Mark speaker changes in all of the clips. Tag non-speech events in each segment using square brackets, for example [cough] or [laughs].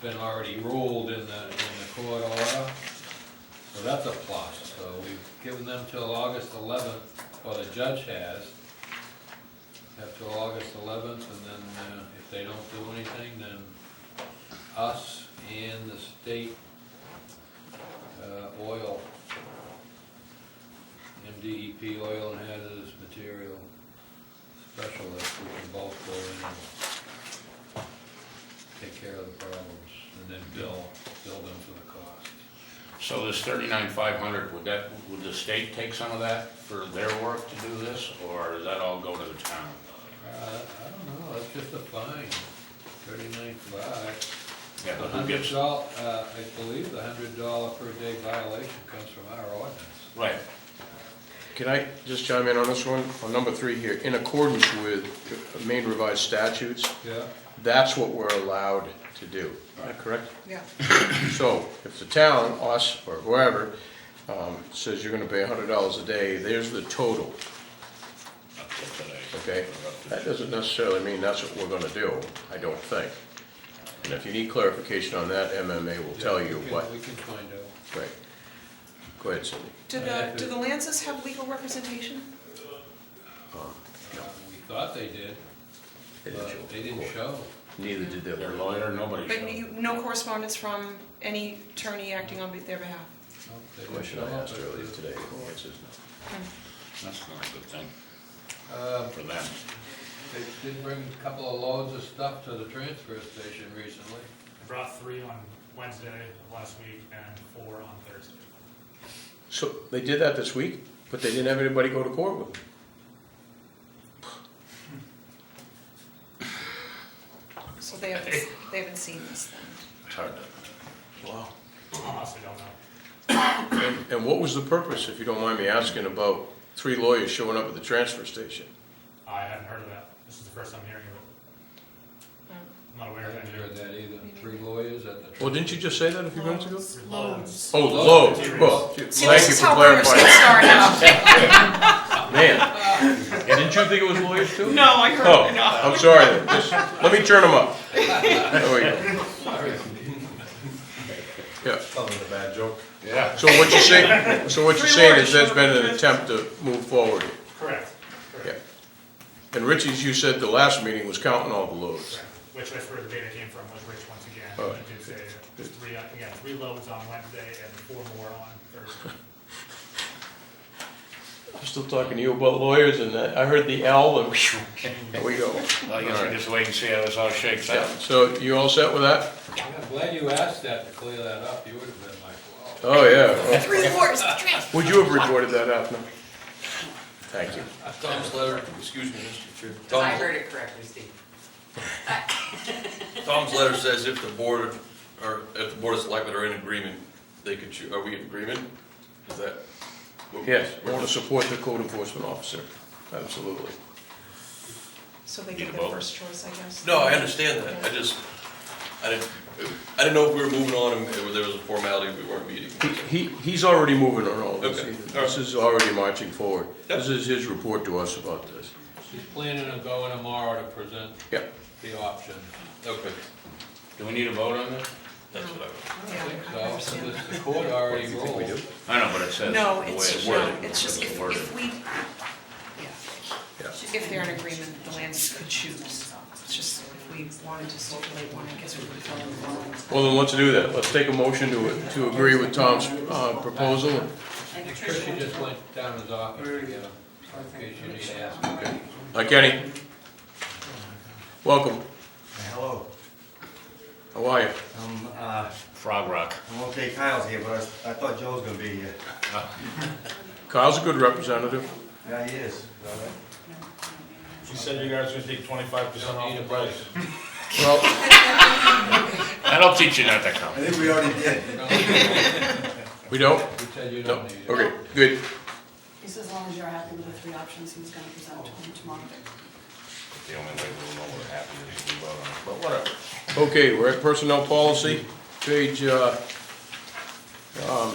Speaker 1: been already ruled in the, in the court order. So that's a plus, so we've given them till August eleventh, or the judge has. Have till August eleventh, and then uh, if they don't do anything, then us and the state uh, oil, MDEP oil and hazardous material specialist, we can both go in and take care of the problems, and then bill, bill them for the cost.
Speaker 2: So this thirty-nine five hundred, would that, would the state take some of that for their work to do this, or does that all go to the town?
Speaker 1: Uh, I don't know, that's just a fine, thirty-nine five.
Speaker 2: Yeah,
Speaker 1: A
Speaker 2: but who
Speaker 1: hundred
Speaker 2: gets,
Speaker 1: doll, uh, I believe the hundred dollar per day violation comes from our ordinance.
Speaker 2: right,
Speaker 3: Can I just chime in on this one? On number three here, in accordance with Maine revised statutes,
Speaker 1: Yeah.
Speaker 3: that's what we're allowed to do. Is that correct?
Speaker 4: Yeah.
Speaker 3: So if the town, us, or whoever, um, says you're gonna pay hundred dollars a day, there's the total,
Speaker 2: up to today.
Speaker 3: okay? That doesn't necessarily mean that's what we're gonna do, I don't think. And if you need clarification on that, MMA will tell
Speaker 1: Yeah, we
Speaker 3: you
Speaker 1: can-
Speaker 3: what,
Speaker 1: We can find out.
Speaker 3: right. Go ahead, Cindy.
Speaker 4: Do the, do the Lancers have legal representation?
Speaker 1: Uh, We thought they did,
Speaker 3: They
Speaker 1: but
Speaker 3: didn't show up
Speaker 1: Uh, they
Speaker 3: to
Speaker 1: didn't
Speaker 3: court.
Speaker 1: show.
Speaker 3: Neither did
Speaker 2: Their
Speaker 3: their
Speaker 2: lawyer, nobody
Speaker 4: But
Speaker 2: showed.
Speaker 4: you- no correspondence from any attorney acting on their behalf?
Speaker 1: Nope, they didn't
Speaker 3: question
Speaker 1: show
Speaker 3: I
Speaker 1: up
Speaker 3: asked
Speaker 1: at
Speaker 3: earlier
Speaker 1: the-
Speaker 3: today. The answer is no.
Speaker 2: That's not a good thing
Speaker 1: Um,
Speaker 2: for them.
Speaker 1: They did bring a couple of loads of stuff to the transfer station recently.
Speaker 5: I brought three on Wednesday of last week and four on Thursday.
Speaker 3: So they did that this week, but they didn't have anybody go to court with them.
Speaker 4: So they haven't, they haven't seen this then?
Speaker 2: It's hard to,
Speaker 3: Wow.
Speaker 5: Honestly, don't know.
Speaker 3: And, and what was the purpose, if you don't mind me asking, about three lawyers showing up at the transfer station?
Speaker 5: I hadn't heard of that. This is the first I'm hearing of it.
Speaker 4: Um,
Speaker 5: I'm not
Speaker 1: I
Speaker 5: aware of
Speaker 1: haven't heard
Speaker 5: any.
Speaker 1: that either. Three lawyers at the.
Speaker 3: Well, didn't you just say that a few minutes ago?
Speaker 5: Loans.
Speaker 3: Oh, Lowe's. Well,
Speaker 4: See, this
Speaker 3: thank you
Speaker 4: is
Speaker 3: for
Speaker 4: how lawyers
Speaker 3: clarifying.
Speaker 4: get started
Speaker 3: [laughs]
Speaker 4: [laughs] out.
Speaker 3: Man. Didn't you think it was lawyers too?
Speaker 4: No, I heard,
Speaker 3: Oh,
Speaker 4: no.
Speaker 3: I'm sorry. then. Just- Let me turn them up. There we go. Yeah.
Speaker 6: Tell me the bad joke.
Speaker 2: yeah.
Speaker 3: So what you're saying, so what you're
Speaker 4: Three
Speaker 3: saying
Speaker 4: lawyers
Speaker 3: is there's
Speaker 4: showed up
Speaker 3: been
Speaker 4: at
Speaker 3: an
Speaker 4: the
Speaker 3: attempt to move forward here.
Speaker 5: Correct.
Speaker 3: Yeah.
Speaker 5: Correct.
Speaker 3: And Richie's, you said the last meeting was counting all the loads.
Speaker 5: Correct. Which, that's where the data came from, was Rich once again.
Speaker 3: Oh,
Speaker 5: He did say that
Speaker 3: good.
Speaker 5: three, uh, again, three loads on Wednesday and four more on Thursday.
Speaker 3: I'm still talking to you about lawyers and that. I heard the L and whew, [laughs] there we go.
Speaker 2: I guess we just wait and see how this all shakes
Speaker 3: Yeah,
Speaker 2: out.
Speaker 3: So you all set with that?
Speaker 1: I'm glad you asked that to clear that up. You would have been like, wow.
Speaker 3: Oh, yeah.
Speaker 4: Three lawyers, transfer.
Speaker 3: Would you have reported that, Afner? Thank you.
Speaker 7: Tom's letter, excuse me, Mr. Chair.
Speaker 8: Because I
Speaker 7: Tom's-
Speaker 8: heard it correctly, Steve.
Speaker 7: Tom's letter says if the board, or if the board of selectmen are in agreement, they could choose, are we in agreement? Is that?
Speaker 3: Yes, I want to support the code enforcement officer. Absolutely.
Speaker 4: So they
Speaker 2: Need a
Speaker 4: get their
Speaker 2: vote?
Speaker 4: first choice, I guess?
Speaker 7: No, I understand that, I just, I didn't, I didn't know if we were moving on and there was a formality, we weren't meeting.
Speaker 3: He, he's already moving on all this.
Speaker 7: Okay, all right.
Speaker 3: This is already marching forward.
Speaker 7: Yep.
Speaker 3: This is his report to us about this.
Speaker 1: She's planning on going tomorrow to present
Speaker 3: Yeah.
Speaker 1: the option.
Speaker 7: Okay,
Speaker 2: Do we need a vote on this?
Speaker 7: that's what I,
Speaker 4: Yeah, I
Speaker 1: So, so
Speaker 4: understand.
Speaker 1: this- the court already ruled.
Speaker 2: I know, but it says.
Speaker 4: No,
Speaker 2: the way
Speaker 4: it's, no,
Speaker 2: worded,
Speaker 4: it's just
Speaker 2: the way
Speaker 4: if,
Speaker 2: worded.
Speaker 4: if we, yeah.
Speaker 3: Yeah.
Speaker 4: If they're in agreement, the Lancers could choose. It's just if we wanted to circulate one, I guess we would fill in the blank.
Speaker 3: Well, then let's do that. Let's take a motion to, to agree with Tom's uh, proposal.
Speaker 1: Chris, you just went down his office to get him, in case you need to ask him.
Speaker 3: Hi, Kenny. Welcome.
Speaker 6: Hello,
Speaker 3: How are you?
Speaker 6: I'm, uh,
Speaker 2: Frog Rock.
Speaker 6: I'm okay, Kyle's here, but I, I thought Joe was gonna be here.
Speaker 3: Kyle's a good representative.
Speaker 6: Yeah, he is.
Speaker 9: You said you guys would take twenty-five percent
Speaker 1: Don't
Speaker 9: off
Speaker 1: need
Speaker 9: the
Speaker 1: a
Speaker 9: price.
Speaker 1: vote.
Speaker 3: Well,
Speaker 2: That'll teach you not to come.
Speaker 6: I think we already did.
Speaker 1: Don't need a vote.
Speaker 3: we don't?
Speaker 1: You said you
Speaker 3: No.
Speaker 1: don't need it.
Speaker 3: Okay, good.
Speaker 10: He says as long as you're happy with the three options he's gonna present to him tomorrow.
Speaker 2: The only way we'll know what happened is if we vote on it, but whatever.
Speaker 3: Okay, we're at personnel policy, page, uh, um,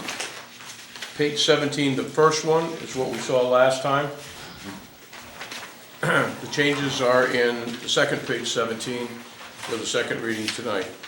Speaker 3: page 17, the first one is what we saw last time. [clears throat] The changes are in the second page 17 for the second reading tonight.